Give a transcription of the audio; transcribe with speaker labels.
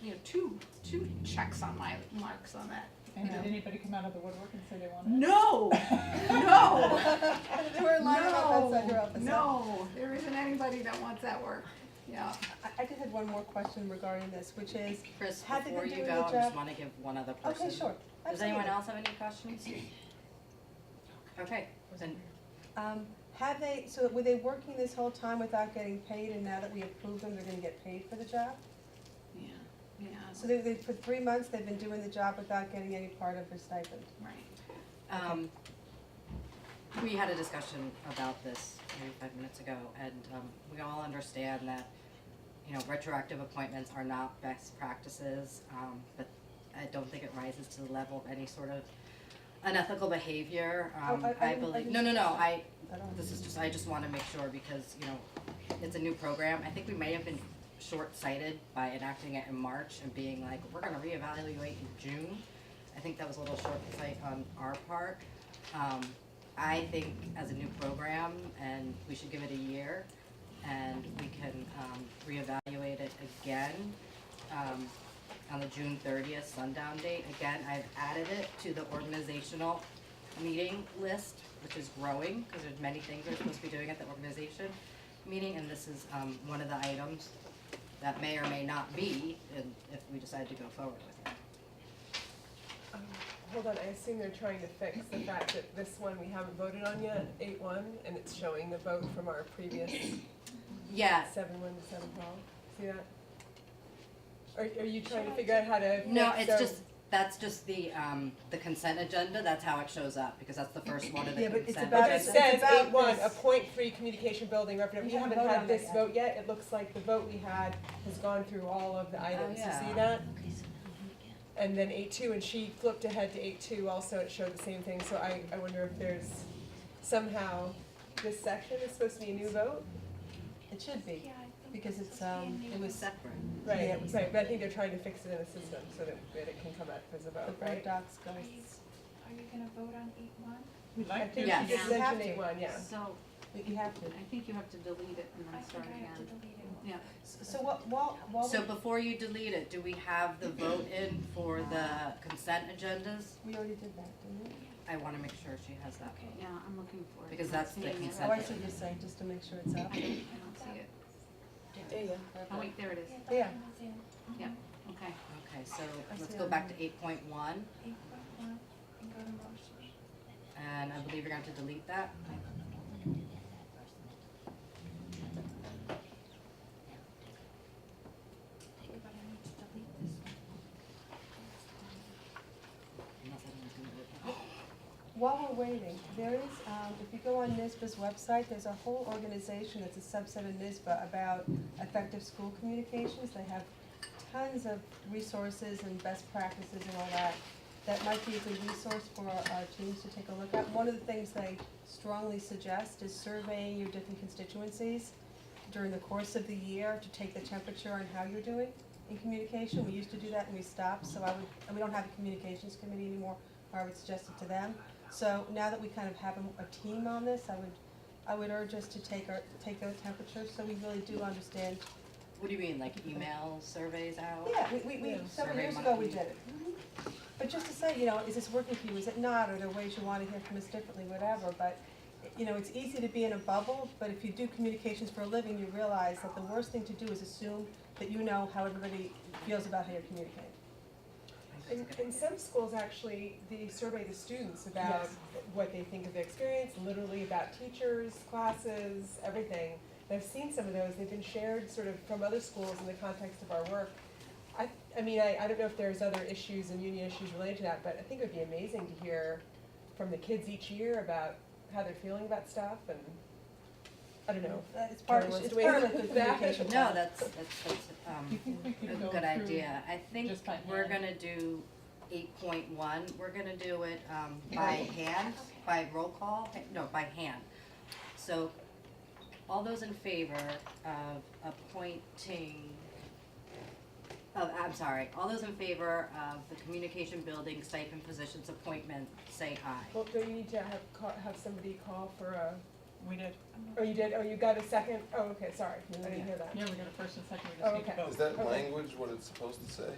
Speaker 1: you know, two, two checks on my marks on that.
Speaker 2: And
Speaker 1: Yeah.
Speaker 2: did anybody come out of the woodwork and say they wanted it?
Speaker 1: No, no,
Speaker 3: They were lining up outside your
Speaker 1: no,
Speaker 3: office.
Speaker 1: no, there isn't anybody that wants that work, yeah.
Speaker 3: I, I just had one more question regarding this, which is,
Speaker 4: Chris,
Speaker 3: Had they been
Speaker 4: before you
Speaker 3: doing
Speaker 4: go,
Speaker 3: the
Speaker 4: I just
Speaker 3: job-
Speaker 4: wanna give one other person.
Speaker 3: okay, sure,
Speaker 4: Does anyone
Speaker 3: absolutely.
Speaker 4: else have any questions? Okay, then,
Speaker 3: Um, have they, so were they working this whole time without getting paid, and now that we approve them, they're gonna get paid for the job?
Speaker 1: Yeah, yeah,
Speaker 3: So they, they, for three months, they've been doing the job without getting any part of their stipend?
Speaker 1: right.
Speaker 4: um, we had a discussion about this maybe five minutes ago, and, um, we all understand that, you know, retroactive appointments are not best practices, um, but I don't think it rises to the level of any sort of unethical behavior,
Speaker 3: Oh,
Speaker 4: um,
Speaker 3: I- I
Speaker 4: I
Speaker 3: didn't- I
Speaker 4: believe,
Speaker 3: didn't-
Speaker 4: no, no, no, I,
Speaker 3: I don't
Speaker 4: This is just, I just wanna make sure because, you know, it's a new program, I think we may have been short-sighted by enacting it in March and being like, we're gonna reevaluate in June. I think that was a little short-sight on our part. Um, I think as a new program, and we should give it a year, and we can, um, reevaluate it again, um, on the June thirtieth sundown date. Again, I've added it to the organizational meeting list, which is growing, because there's many things we're supposed to be doing at the organization meeting, and this is, um, one of the items that may or may not be, and if we decide to go forward with it.
Speaker 5: Hold on, I assume they're trying to fix the fact that this one we haven't voted on yet, eight one, and it's showing the vote from our previous
Speaker 4: Yeah,
Speaker 5: seven one to seven twelve, see that? Are, are you trying to figure out how to
Speaker 4: no,
Speaker 5: fix
Speaker 4: it's
Speaker 5: so-
Speaker 4: just, that's just the, um, the consent agenda, that's how it shows up, because that's the first one of the
Speaker 3: Yeah, but
Speaker 4: consent
Speaker 3: it's
Speaker 4: agenda.
Speaker 3: about-
Speaker 5: But it
Speaker 3: it's
Speaker 5: says
Speaker 3: about
Speaker 5: eight one,
Speaker 3: this.
Speaker 5: a point three communication building representative,
Speaker 3: We
Speaker 5: we
Speaker 3: haven't
Speaker 5: haven't
Speaker 3: voted
Speaker 5: had
Speaker 3: on that
Speaker 5: this
Speaker 3: yet.
Speaker 5: vote yet, it looks like the vote we had has gone through all of the items, you
Speaker 4: yeah.
Speaker 5: see that? And then eight two, and she flipped ahead to eight two also, it showed the same thing, so I, I wonder if there's somehow, this section is supposed to be a new vote?
Speaker 3: It should be, because it's, um, it
Speaker 4: It was
Speaker 3: was,
Speaker 4: separate.
Speaker 3: Yeah,
Speaker 5: Right,
Speaker 3: it was-
Speaker 5: right, but I think they're trying to fix it in a system so that, that it can come up as a
Speaker 3: the
Speaker 5: vote,
Speaker 3: board
Speaker 5: right?
Speaker 3: docs
Speaker 6: Are
Speaker 3: goes,
Speaker 6: you, are you gonna vote on eight one?
Speaker 2: We'd
Speaker 5: I
Speaker 2: like to.
Speaker 5: think
Speaker 4: Yeah.
Speaker 5: she just
Speaker 3: Yeah.
Speaker 5: mentioned eight one, yeah.
Speaker 1: So,
Speaker 3: but you have to.
Speaker 1: I think you have to delete it and then
Speaker 6: I think
Speaker 1: start
Speaker 6: I have to
Speaker 1: again.
Speaker 6: delete it.
Speaker 1: Yeah,
Speaker 3: So what, while, while
Speaker 4: So before you delete it, do we have the vote in for the consent agendas?
Speaker 3: we, we already did that, didn't we?
Speaker 4: I wanna make sure she has that.
Speaker 6: Okay.
Speaker 1: yeah, I'm looking for it.
Speaker 4: Because
Speaker 1: I'm not
Speaker 4: that's the
Speaker 1: seeing it.
Speaker 4: consent
Speaker 3: Oh, I see what you're saying, just to make sure it's
Speaker 1: I
Speaker 3: up.
Speaker 1: don't, I don't see it.
Speaker 5: There you go.
Speaker 1: Oh, wait, there it is.
Speaker 6: Yeah, that
Speaker 3: Yeah.
Speaker 6: one was in Mm-hmm.
Speaker 1: Yeah. Okay,
Speaker 4: Okay, so
Speaker 3: I
Speaker 4: let's
Speaker 3: see
Speaker 4: go
Speaker 3: it.
Speaker 4: back to eight point one,
Speaker 6: eight point one, and go to motion.
Speaker 4: and I believe you're gonna have to delete that.
Speaker 6: Okay, but I need to delete this one.
Speaker 4: Unless I don't do it.
Speaker 3: While we're waiting, there is, um, if you go on NISBA's website, there's a whole organization that's a subset of NISBA about effective school communications. They have tons of resources and best practices and all that. That might be a good resource for our, our teams to take a look at. One of the things they strongly suggest is surveying your different constituencies during the course of the year to take the temperature on how you're doing in communication. We used to do that and we stopped, so I would, and we don't have a communications committee anymore, or I would suggest it to them. So now that we kind of have a, a team on this, I would, I would urge us to take our, take those temperatures, so we really do understand.
Speaker 4: What do you mean, like email surveys out?
Speaker 3: Yeah, we, we, we,
Speaker 5: Yeah.
Speaker 3: several
Speaker 4: Survey
Speaker 3: years ago, we
Speaker 4: monkey.
Speaker 3: did it. But just to say, you know, is this working for you, is it not, are there ways you wanna hear from us differently, whatever, but, you know, it's easy to be in a bubble, but if you do communications for a living, you realize that the worst thing to do is assume that you know how everybody feels about how you're communicating.
Speaker 5: In, in some schools, actually, they survey the students about
Speaker 3: Yes.
Speaker 5: what they think of their experience, literally about teachers, classes, everything. And I've seen some of those, they've been shared sort of from other schools in the context of our work. I, I mean, I, I don't know if there's other issues and union issues related to that, but I think it would be amazing to hear from the kids each year about how they're feeling about stuff and, I don't know.
Speaker 3: Uh, It's part,
Speaker 5: Kinda
Speaker 3: it's
Speaker 5: wants
Speaker 3: it's
Speaker 5: to wait.
Speaker 3: part of good
Speaker 5: That-
Speaker 3: communication.
Speaker 4: No, that's, that's, that's,
Speaker 2: Do
Speaker 4: um,
Speaker 2: you think we could
Speaker 4: a
Speaker 2: go
Speaker 4: good
Speaker 2: through,
Speaker 4: idea. I think
Speaker 2: just by hand?
Speaker 4: we're gonna do eight point one, we're gonna do it, um, by hand,
Speaker 6: Okay.
Speaker 4: by roll call, no, by hand. So, all those in favor of appointing, of, I'm sorry, all those in favor of the communication building stipend positions appointment, say aye.
Speaker 5: Well, do you need to have, ca- have somebody call for a We did.
Speaker 7: I'm
Speaker 3: Oh,
Speaker 7: not-
Speaker 3: you did, oh, you got a second, oh, okay, sorry, I
Speaker 8: Yeah.
Speaker 3: didn't hear that.
Speaker 5: Yeah, we got a first and second, we
Speaker 3: Oh,
Speaker 5: just need to
Speaker 3: okay.
Speaker 5: vote.
Speaker 9: Is that
Speaker 3: Okay.
Speaker 9: language what it's supposed to say?